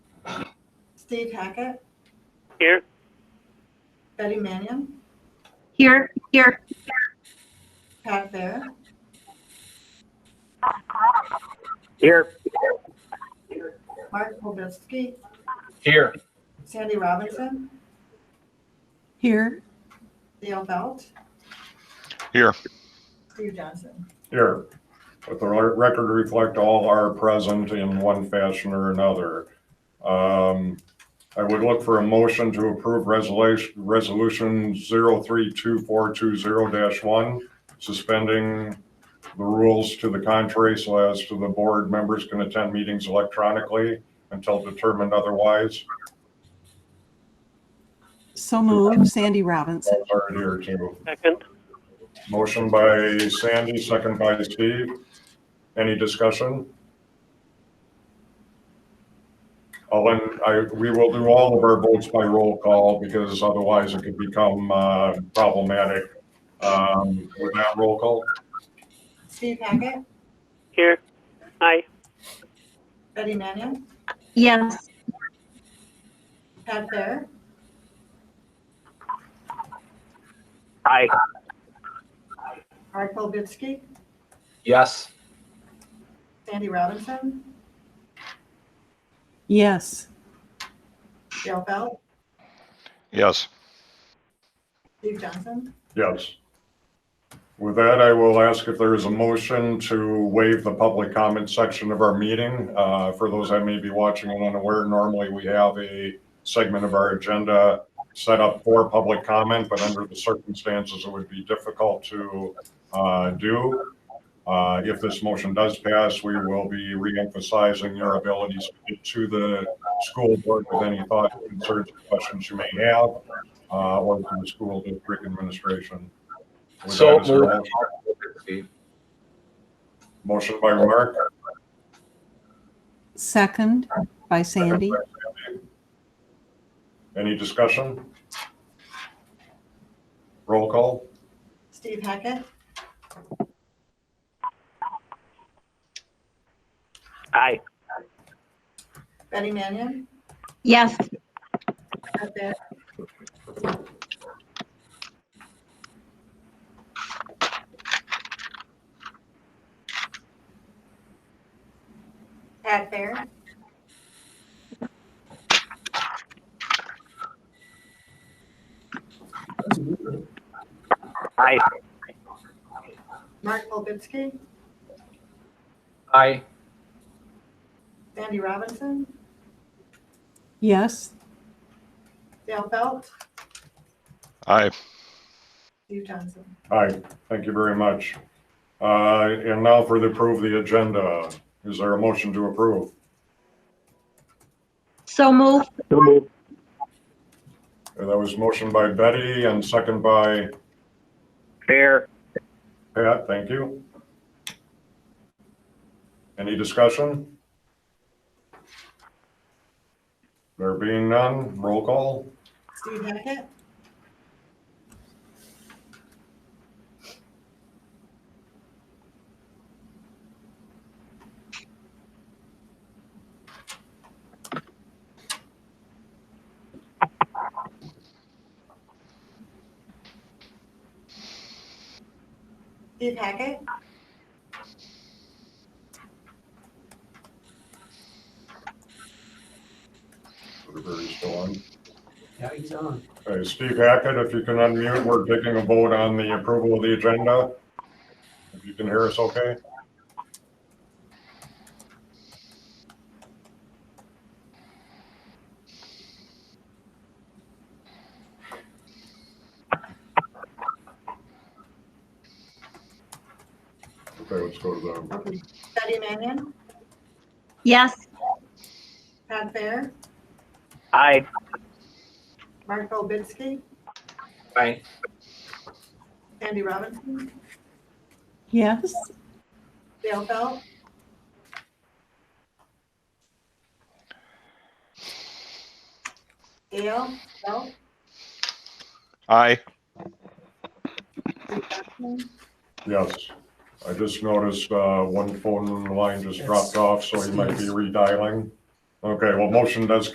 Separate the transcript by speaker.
Speaker 1: Steve Hackett,
Speaker 2: Here,
Speaker 1: Betty Mannion,
Speaker 3: Here, here,
Speaker 1: Pat Fair,
Speaker 2: here,
Speaker 1: Mark Polbisky,
Speaker 4: Here.
Speaker 1: Sandy Robinson,
Speaker 5: Here,
Speaker 1: Dale Belt,
Speaker 6: Here,
Speaker 1: Steve Johnson.
Speaker 7: Here, let the re- record reflect all are present in one fashion or another. Um, I would look for a motion to approve resolution, resolution 032-420-1, suspending the rules to the contrary so as to the board members can attend meetings electronically until determined otherwise.
Speaker 5: so moved, Sandy Robinson.
Speaker 7: Sorry, here too.
Speaker 2: second.
Speaker 7: Motion by Sandy, second by Steve. Any discussion? All in, I, we will do all of our votes by roll call because otherwise it could become uh, problematic. Um, With that roll call,
Speaker 1: Steve Hackett,
Speaker 2: Here, aye.
Speaker 1: Betty Mannion,
Speaker 3: yes,
Speaker 1: Pat Fair,
Speaker 4: Aye.
Speaker 1: Mark Polbisky,
Speaker 4: Yes.
Speaker 1: Sandy Robinson,
Speaker 5: Yes,
Speaker 1: Dale Belt,
Speaker 6: yes,
Speaker 1: Steve Johnson.
Speaker 7: yes. With that, I will ask if there is a motion to waive the public comment section of our meeting. Uh, For those that may be watching and unaware, normally we have a segment of our agenda set up for public comment, but under the circumstances, it would be difficult to uh, do. Uh, If this motion does pass, we will be reemphasizing your abilities to get to the school board with any thoughts, concerns, or questions you may have, uh, or to the school district administration. With
Speaker 4: So
Speaker 7: that, is there a
Speaker 4: moved.
Speaker 7: Motion by Mark,
Speaker 5: second by Sandy.
Speaker 7: any discussion? Roll call?
Speaker 1: Steve Hackett,
Speaker 2: Aye.
Speaker 1: Betty Mannion,
Speaker 3: yes,
Speaker 1: Pat Fair, Pat Fair,
Speaker 4: Aye.
Speaker 1: Mark Polbisky,
Speaker 4: Aye.
Speaker 1: Sandy Robinson,
Speaker 5: Yes,
Speaker 1: Dale Belt,
Speaker 6: aye,
Speaker 1: Steve Johnson.
Speaker 7: Aye, thank you very much. Uh, And now for the approve the agenda. Is there a motion to approve?
Speaker 3: so moved,
Speaker 2: So moved.
Speaker 7: Uh, That was motion by Betty and second by
Speaker 2: Fair.
Speaker 7: Pat, thank you. Any discussion? There being none, roll call?
Speaker 1: Steve Hackett, Steve Hackett,
Speaker 7: Everybody's still on.
Speaker 8: Yeah, he's on.
Speaker 7: Okay, Steve Hackett, if you can unmute, we're taking a vote on the approval of the agenda. If you can hear us, okay? Okay, let's go to the,
Speaker 1: Betty Mannion,
Speaker 3: yes,
Speaker 1: Pat Fair,
Speaker 2: Aye.
Speaker 1: Mark Polbisky,
Speaker 4: Aye.
Speaker 1: Sandy Robinson,
Speaker 5: yes,
Speaker 1: Dale Belt, Dale Belt,
Speaker 6: aye.
Speaker 7: yes. I just noticed, uh, one phone line just dropped off, so he might be redialing. Okay, well, motion does